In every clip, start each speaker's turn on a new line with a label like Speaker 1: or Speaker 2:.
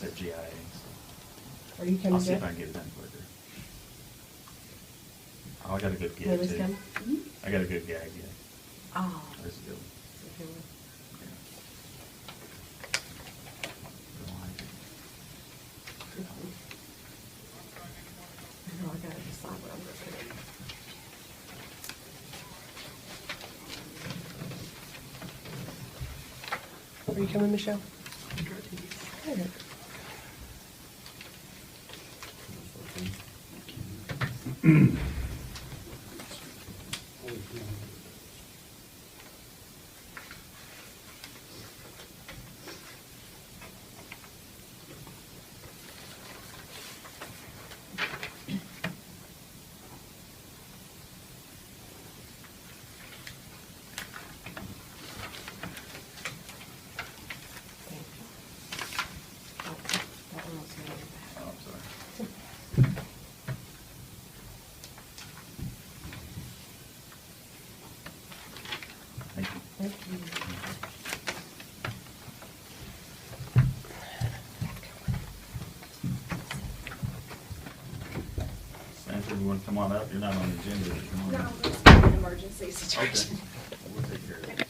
Speaker 1: GIA.
Speaker 2: Are you
Speaker 1: I'll
Speaker 2: coming
Speaker 1: see if I
Speaker 2: back?
Speaker 1: can get it done quicker. Oh, I got a good gig too.
Speaker 2: Lily's coming?
Speaker 1: I got a good gag, yeah.
Speaker 2: Oh.
Speaker 1: That's a good one. Yeah. Don't like it.
Speaker 2: I know, I gotta decide what I'm gonna pick. Are you coming, Michelle? Okay. Thank you. Oh, that one was really
Speaker 1: Oh, I'm sorry.
Speaker 2: bad.
Speaker 1: Thank you.
Speaker 2: Thank you.
Speaker 1: Sandra, you wanna come on up? You're not on the agenda. but come on
Speaker 3: No,
Speaker 1: up.
Speaker 3: it's an emergency
Speaker 1: Okay,
Speaker 3: situation.
Speaker 1: we'll take care of it.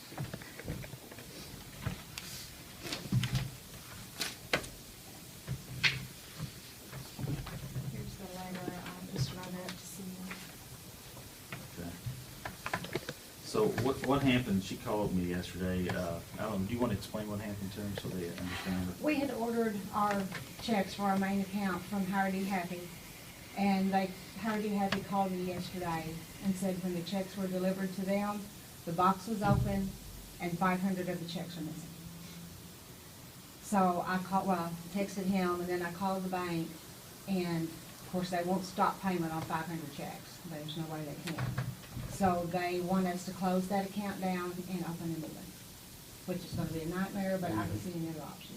Speaker 3: Here's the letter, I'll just run it to see.
Speaker 1: Okay. So what, what happened, she called me yesterday, uh, Alan, do you wanna explain what happened to them so they understand? it?
Speaker 4: We had ordered our checks for our main account from Hardy Happy, and they, Hardy Happy called me yesterday and said when the checks were delivered to them, the box was open and five hundred of the checks were missing. So I called, well, texted him, and then I called the bank, and of course, they won't stop payment on five hundred checks. There's no way they can. So they want us to close that account down and open a new one, which is gonna be a nightmare, but I don't see another option.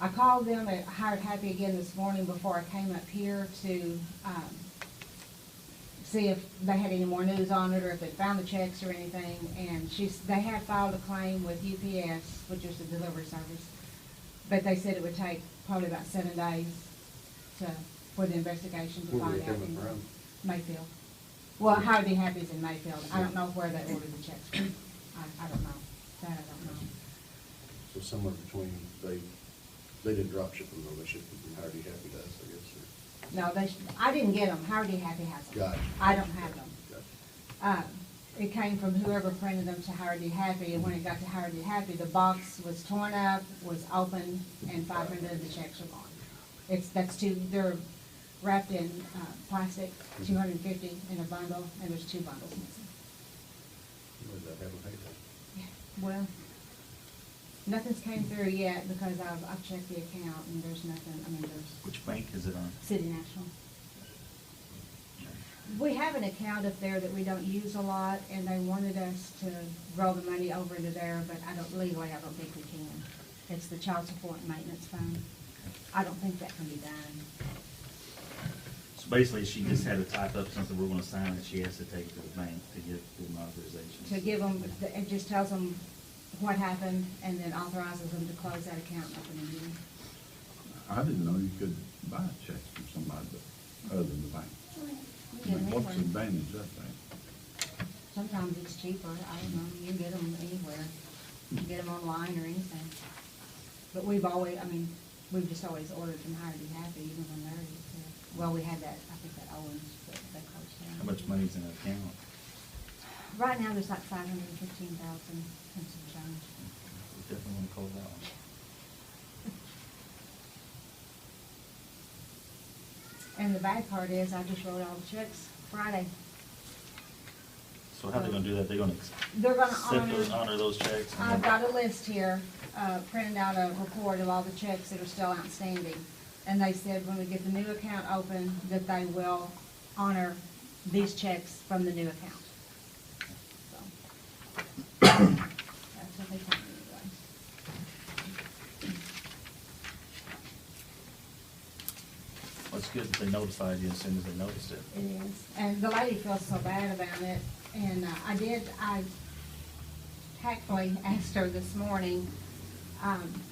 Speaker 4: I called them at Hired Happy again this morning before I came up here to, um, see if they had any more news on it or if they found the checks or anything. And she's, they had filed a claim with UPS, which is the delivery service. But they said it would take probably about seven days to, for the investigation to
Speaker 5: Where were
Speaker 4: find
Speaker 5: they
Speaker 4: out.
Speaker 5: coming
Speaker 4: anymore.
Speaker 5: from?
Speaker 4: Mayfield. Well, Howdy Happy's in Mayfield. I don't know where they ordered the checks from. I, I don't know. That I don't know.
Speaker 5: So somewhere between, they, they didn't drop ship them, though, they shipped them from Hardy Happy to us, I guess,
Speaker 4: No, they, sh- I didn't get them. Howdy Happy has
Speaker 5: or,
Speaker 4: them.
Speaker 5: gotcha.
Speaker 4: I don't have them.
Speaker 5: Gotcha.
Speaker 4: Um, It came from whoever printed them to Hardy Happy, and when it got to Hardy Happy, the box was torn up, was open, and five hundred of the checks were gone. It's, that's two, they're wrapped in uh, plastic, two hundred and fifty in a bundle, and there's two bundles missing.
Speaker 5: Where did that happen, hey,
Speaker 4: Yeah, Well, nothing's came through yet, because I've, I've checked the account, and there's nothing, I mean, there's
Speaker 1: Which bank is it on?
Speaker 4: City National.
Speaker 1: Okay.
Speaker 4: We have an account up there that we don't use a lot, and they wanted us to roll the money over into there, but I don't, legally, I don't think we can. It's the child support and maintenance fund. I don't think that can be done.
Speaker 1: So basically, she just had to type up something we're gonna sign that she has to take to the bank to get the authorization.
Speaker 4: To give them, it just tells them what happened, and then authorizes them to close that account and open a new one.
Speaker 6: I didn't know you could buy checks from somebody but- other than the bank.
Speaker 4: You
Speaker 6: I
Speaker 4: can get
Speaker 6: mean,
Speaker 4: them
Speaker 6: What's the
Speaker 4: anywhere.
Speaker 6: advantage of that?
Speaker 4: Sometimes it's cheaper, I don't know, you can get them anywhere. You can get them online or anything. But we've always, I mean, we've just always ordered from Hire to Be Happy, even when they're, uh, well, we had that, I think that Owens, but that closed down.
Speaker 1: How much money's in that account?
Speaker 4: Right now, there's like five hundred and fifteen thousand and some change.
Speaker 1: We Definitely wanna call that one.
Speaker 4: And the bad part is, I just wrote all the checks Friday.
Speaker 1: So how they gonna do that? They gonna?
Speaker 4: They're gonna
Speaker 1: accept those-
Speaker 4: honor-
Speaker 1: Honor those checks? and
Speaker 4: I've
Speaker 1: then-
Speaker 4: got a list here, uh, printed out a report of all the checks that are still outstanding. And they said when we get the new account open, that they will honor these checks from the new account. So That's what they told me anyway.
Speaker 1: Well, it's good that they notified you as soon as they noticed it.
Speaker 4: It is. And the lady feels so bad about it, and uh, I did, I tactfully asked her this morning, um,